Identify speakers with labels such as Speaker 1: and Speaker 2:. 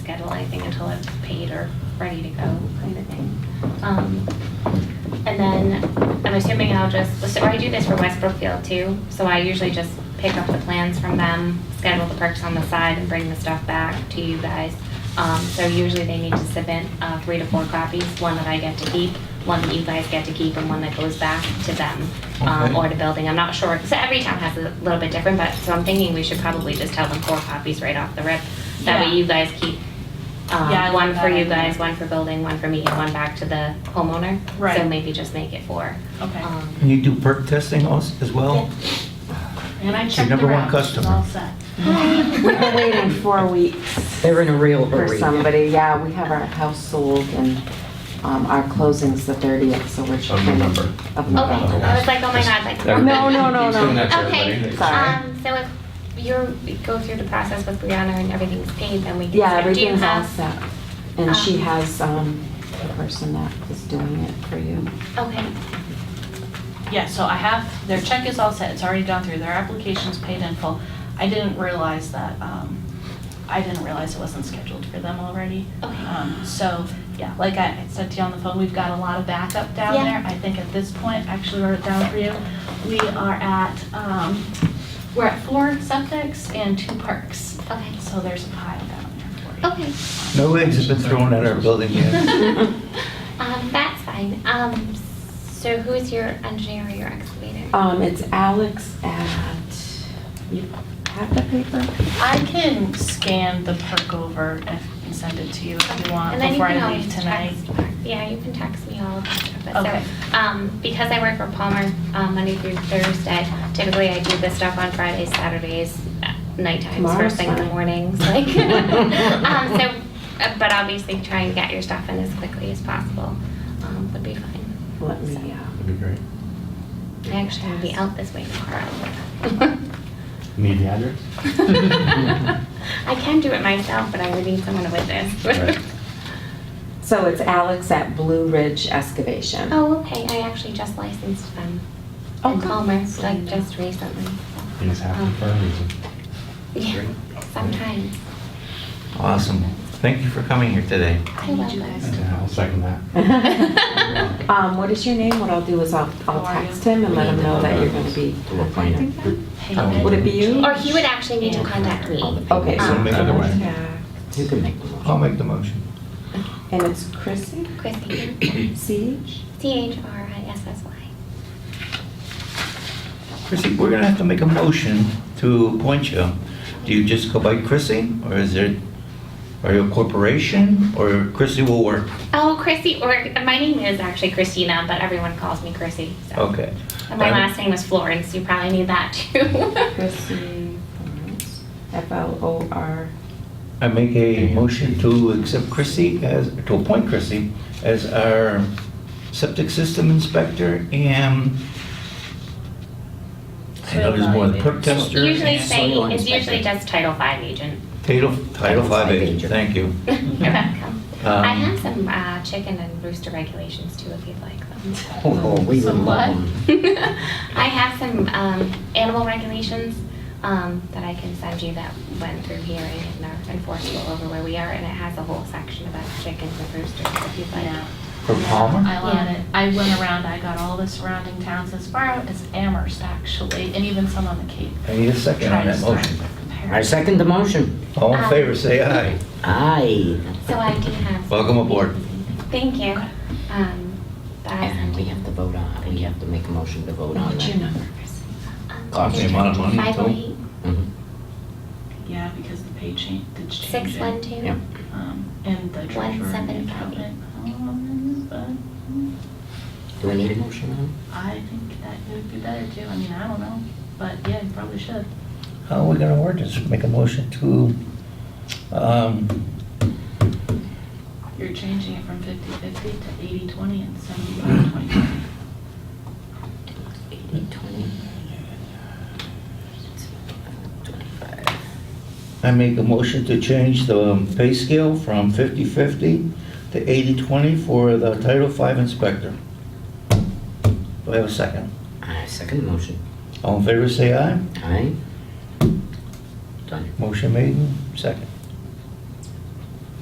Speaker 1: schedule anything until it's paid or ready to go, kind of thing. Um, And then, I'm assuming I'll just, so I do this for Westbrook Field too, so I usually just pick up the plans from them, schedule the perks on the side, and bring the stuff back to you guys. Um, So usually they need to submit uh, three to four copies, one that I get to keep, one that you guys get to keep, and one that goes back to them um,
Speaker 2: Okay.
Speaker 1: or to building. I'm not sure, so every town has a little bit different, but, so I'm thinking we should probably just tell them four copies right off the rip. That
Speaker 3: Yeah.
Speaker 1: way you guys keep um,
Speaker 3: Yeah, I like
Speaker 1: one for
Speaker 3: that
Speaker 1: you
Speaker 3: idea.
Speaker 1: guys, one for building, one for me, and one back to the homeowner. So
Speaker 3: Right.
Speaker 1: maybe just make it four.
Speaker 3: Okay.
Speaker 1: Um,
Speaker 2: And you do perk testing als- as well?
Speaker 3: And I
Speaker 2: Your
Speaker 3: checked
Speaker 2: number one
Speaker 3: around, she's
Speaker 2: customer.
Speaker 3: all set.
Speaker 4: We've been waiting four weeks
Speaker 5: They're in a real
Speaker 4: for
Speaker 5: hurry.
Speaker 4: somebody. Yeah, we have our house sold and um, our closing's the 30th, so we're checking.
Speaker 6: November.
Speaker 4: Of
Speaker 1: Okay,
Speaker 4: November.
Speaker 1: I was like, oh my god, like.
Speaker 6: Everybody-
Speaker 4: No, no, no, no.
Speaker 6: Still next to
Speaker 1: Okay,
Speaker 6: everybody.
Speaker 4: Sorry.
Speaker 1: um, so if you're, go through the process with Brianna and everything's paid, then we can.
Speaker 4: Yeah,
Speaker 1: start. Do you
Speaker 4: everything's all
Speaker 1: have-
Speaker 4: set. And she has um, the person that is doing it for you.
Speaker 1: Okay,
Speaker 3: Yeah, so I have, their check is all set, it's already gone through, their application's paid in full. I didn't realize that, um, I didn't realize it wasn't scheduled for them already.
Speaker 1: Okay.
Speaker 3: Um, So, yeah, like I said to you on the phone, we've got a lot of backup down
Speaker 1: Yeah.
Speaker 3: there. I think at this point, I actually wrote it down for you, we are at, um, we're at four septics and two parks.
Speaker 1: okay,
Speaker 3: So there's a pile down there for you.
Speaker 1: okay,
Speaker 2: No eggs have been thrown at our building yet.
Speaker 1: um, that's fine, um, so who's your engineer or your excavator?
Speaker 4: Um, It's Alex at, you have the paper?
Speaker 3: I can scan the perk over if- and send it to you if you want
Speaker 1: And then you
Speaker 3: before
Speaker 1: can
Speaker 3: I leave
Speaker 1: always
Speaker 3: tonight.
Speaker 1: text- Yeah, you can text me all of that stuff. But
Speaker 3: Okay.
Speaker 1: So, um, because I work for Palmer, um, Monday through Thursday, typically I do this stuff on Fridays, Saturdays, uh, night times,
Speaker 4: Tomorrow's
Speaker 1: first thing in the
Speaker 4: fine.
Speaker 1: mornings, like. Um, so, uh, but obviously try and get your stuff in as quickly as possible, um, would be fine.
Speaker 4: Let me, uh,
Speaker 6: That'd be great.
Speaker 1: I actually will be out this way tomorrow.
Speaker 6: Need the address?
Speaker 1: I can do it myself, but I would need someone to witness.
Speaker 6: Right.
Speaker 4: so it's Alex at Blue Ridge Excavation.
Speaker 1: Oh, okay, I actually just licensed them.
Speaker 4: Oh,
Speaker 1: in
Speaker 4: good.
Speaker 1: Palmer, like just recently. Um,
Speaker 6: Things
Speaker 1: Oh.
Speaker 6: happen for a reason.
Speaker 1: Yeah, sometimes.
Speaker 2: Awesome. Thank you for coming here today.
Speaker 1: I love them.
Speaker 6: Yeah, I'll second that.
Speaker 4: Um, what is your name? What I'll do is I'll, I'll
Speaker 3: How are you?
Speaker 4: text him and let him know that you're gonna be,
Speaker 2: Um,
Speaker 3: Hey,
Speaker 4: would it be you?
Speaker 1: Or he would actually need to contact me.
Speaker 4: Okay.
Speaker 1: So
Speaker 2: make it
Speaker 3: Um,
Speaker 2: away.
Speaker 4: You can make the motion.
Speaker 2: I'll make the motion.
Speaker 4: And it's Chrissy,
Speaker 1: Chrissy,
Speaker 4: C-H?
Speaker 1: C-H-R-I-S-S-Y.
Speaker 2: Chrissy, we're gonna have to make a motion to appoint you. Do you just go by Chrissy, or is it, are you a corporation, or Chrissy will work?
Speaker 1: Oh, Chrissy, or my name is actually Christina, but everyone calls me Chrissy. so.
Speaker 2: Okay.
Speaker 1: And my last name was Florence, you probably need that too.
Speaker 4: Chrissy Florence, F-L-O-R.
Speaker 2: I make a motion to accept Chrissy as, to appoint Chrissy as our septic system inspector and I know there's more than perk tester.
Speaker 1: Usually
Speaker 2: and
Speaker 1: say,
Speaker 5: Soil
Speaker 1: it's usually
Speaker 5: inspector.
Speaker 1: just Title V agent.
Speaker 2: Title, Title
Speaker 5: Title
Speaker 2: V
Speaker 5: V
Speaker 2: agent,
Speaker 5: agent.
Speaker 2: thank you.
Speaker 1: You're welcome. I
Speaker 2: Um,
Speaker 1: have some uh, chicken and rooster regulations too, if you'd like them.
Speaker 5: Oh, we would
Speaker 3: Some what?
Speaker 5: love them.
Speaker 1: I have some um, animal regulations um, that I can send you that went through hearing and are enforceable over where we are, and it has a whole section about chickens and roosters if you'd like.
Speaker 3: Yeah.
Speaker 2: For Palmer?
Speaker 3: I want it. I went around, I got all the surrounding towns as far out as Amherst, actually, and even some on the Cape.
Speaker 2: I need a second on
Speaker 3: Trying to
Speaker 2: that
Speaker 3: start
Speaker 2: motion.
Speaker 3: comparing.
Speaker 5: I second the motion.
Speaker 2: All in favor, say aye.
Speaker 5: Aye.
Speaker 1: So I do have.
Speaker 2: Welcome aboard.
Speaker 1: Thank you. Um, but I
Speaker 5: And we
Speaker 1: sent
Speaker 5: have to vote on, we have to make a motion to vote on
Speaker 4: What's your
Speaker 5: that.
Speaker 4: number?
Speaker 1: um,
Speaker 2: Cost me a lot of money, too.
Speaker 1: 508
Speaker 5: Mhm.
Speaker 3: Yeah, because the pay change, did change it.
Speaker 1: 612.
Speaker 5: Yeah.
Speaker 3: Um, And the treasurer and the
Speaker 1: 175.
Speaker 3: accountant. um, but
Speaker 5: Do we need a motion on? it?
Speaker 3: I think that it would be better too. I mean, I don't know, but yeah, you probably should.
Speaker 2: How are we gonna word this? Make a motion to, um,
Speaker 3: You're changing it from 50/50 to 80/20 and 75/25.
Speaker 5: Eighty, twenty. Twenty-five.
Speaker 2: I make a motion to change the um, pay scale from 50-50 to 80-20 for the Title V inspector. Do I have a second?
Speaker 5: I second the motion.
Speaker 2: All in favor, say aye.
Speaker 5: Aye. Done.
Speaker 2: Motion made, and second.